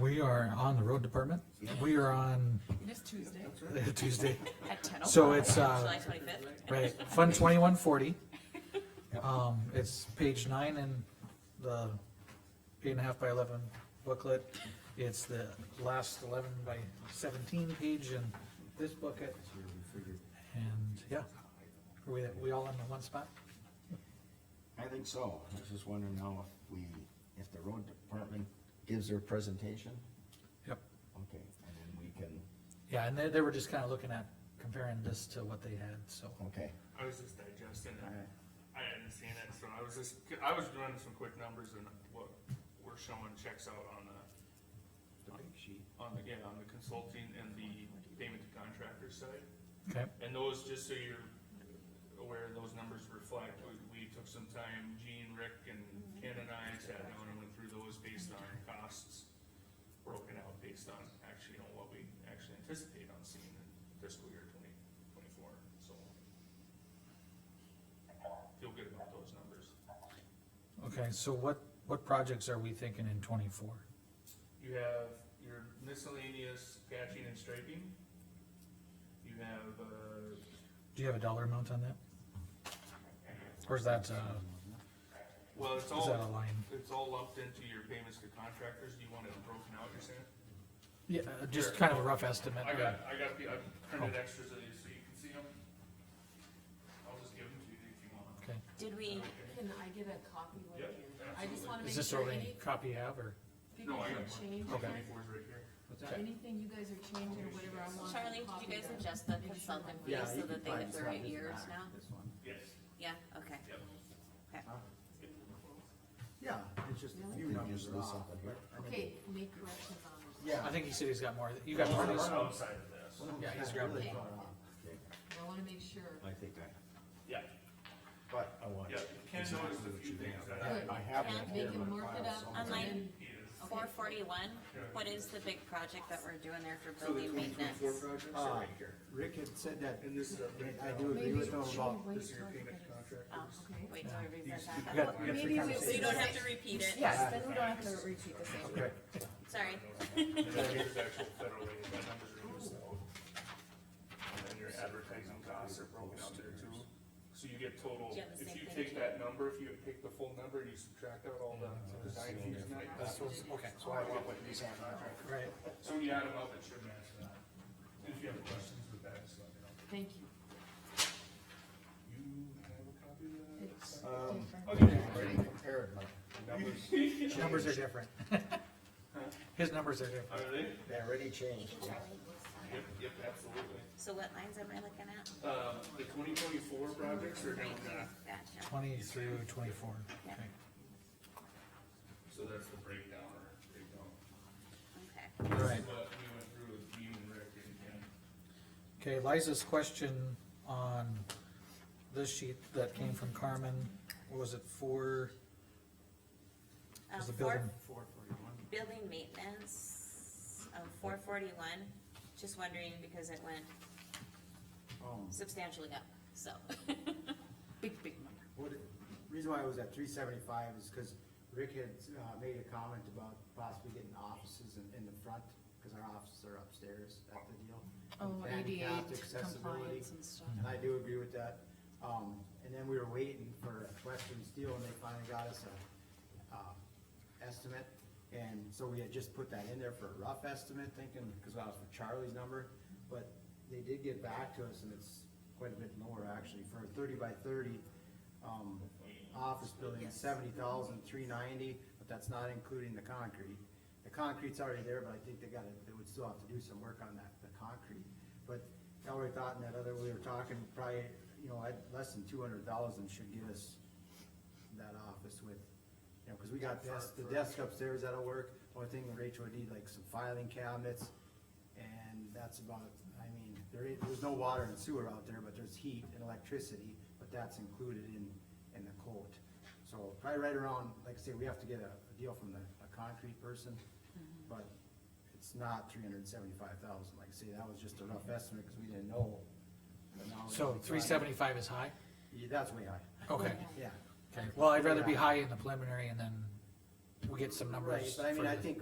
we are on the road department. We are on It is Tuesday Tuesday. at ten o'clock. So it's, uh, July twenty-fifth? right, Fund twenty-one forty. Um, it's page nine in the eight and a half by eleven booklet. It's the last eleven by seventeen page in this booklet. And, yeah, are we, we all in the one spot? I think so. I was just wondering now if we, if the road department gives their presentation, Yep. okay, and then we can, Yeah, and they, they were just kinda looking at comparing this to what they had, so. okay. I was just digesting it. I hadn't seen it, so I was just, I was doing some quick numbers and what we're showing checks out on the. On the, yeah, on the consulting and the payment to contractor side. Okay, And those, just so you're aware, those numbers reflect, we, we took some time, Gene, Rick, and Ken and I sat down and went through those based on costs. Broken out based on actually, you know, what we actually anticipate on seeing in fiscal year twenty twenty-four, so. Feel good about those numbers. okay, so what, what projects are we thinking in twenty-four? You have your miscellaneous patching and striping. You have, uh, Do you have a dollar amount on that? Or is that, uh, well, it's is all. that a line? It's all lumped into your payments to contractors, do you want it broken out, you're saying? Yeah, uh, just kind of a rough estimate. I got, I got the, I printed extras of these so you can see them. I'll just give them to you if you want. Okay, Did we, Can I get a copy right Yep, here? I just wanna is make this sure already any, copy you have, or, people No, I can got mine. change, Okay. it. Twenty-four's right here. anything you guys are changing or whatever I want. Charlie, did you guys adjust the consultant fees Yeah, you so can that they find hit this the right one. years now? This one. Yes, Yeah, okay. yep. Okay. Yeah, it's just a few Really? numbers are off, Something here. but I think- Okay, make corrections on this. Yeah. I think he said he's got more, you got more of these? Outside of this. one of Yeah, them's he's not grabbing really it. far off. I wanna make sure. I think I, Yeah, but I want. yeah, Ken noticed a few things that I Good. I have it Ken, They here can on mark file it up somewhere. and then, Online. is. Four forty-one, what is the big project that we're doing there for So the building twenty maintenance? twenty-four projects are right here. Rick had said that, And this is a and I breakdown. do agree maybe with him she'll about, wait This is till your I payment get to it. Oh, contractors. Okay. wait till I read We that. got- we got three Maybe we- So you conversations. don't have to repeat it, Yes, then we don't have to repeat the same. okay, sorry. And then here's the actual federal aid, that number's reduced out. And then your advertising costs are broken out there too. So you get total, Do you have if the same you thing take too? that number, if you take the full number and you subtract out all the design fees and that. That's okay. why I want what these have contract. Right, So when you add them up, it should match that. And if you have questions with that, just let me know. thank you. You have a copy It's of Um, different. that? I already compared my numbers, numbers are different. His numbers are different. Are they? they already changed. Yep, yep, absolutely. So what lines am I looking at? Um, the twenty twenty-four projects are down there. Gotcha. Twenty through twenty-four, Yeah. okay. So that's the breakdown or breakdown. Okay. Um, Right. But we went through with Dean and Rick and Ken. Okay, Liza's question on this sheet that came from Carmen, what was it, four? Um, Was the four- building- four forty-one. Building maintenance of four forty-one, just wondering because it went Um, substantially up, so. Big, big number. what, reason why I was at three seventy-five is because Rick had, uh, made a comment about possibly getting offices in, in the front, because our offices are upstairs at the deal. Oh, ADA Handicapped accessibility. compliance and stuff. And I do agree with that. Um, and then we were waiting for Western Steel and they finally got us a, um, estimate. And so we had just put that in there for a rough estimate thinking, cause that was for Charlie's number. But they did get back to us and it's quite a bit lower actually for a thirty by thirty, um, office building, seventy thousand, three ninety, but that's not including the concrete. The concrete's already there, but I think they gotta, they would still have to do some work on that, the concrete. But I already thought in that other, we were talking probably, you know, I'd- less than two hundred thousand should get us that office with, you know, cause we got desk, the desk upstairs that'll work. Only thing Rachel would need like some filing cabinets and that's about, I mean, there is, there's no water and sewer out there, but there's heat and electricity, but that's included in, in the quote. So probably right around, like I say, we have to get a, a deal from the, a concrete person, but it's not three hundred and seventy-five thousand, like I say, that was just a rough estimate, cause we didn't know. But now we- So three seventy-five is high? Yeah, that's way high, Okay, yeah. okay, well, I'd rather be high in the preliminary and then we get some numbers. Right, but I mean, I further. think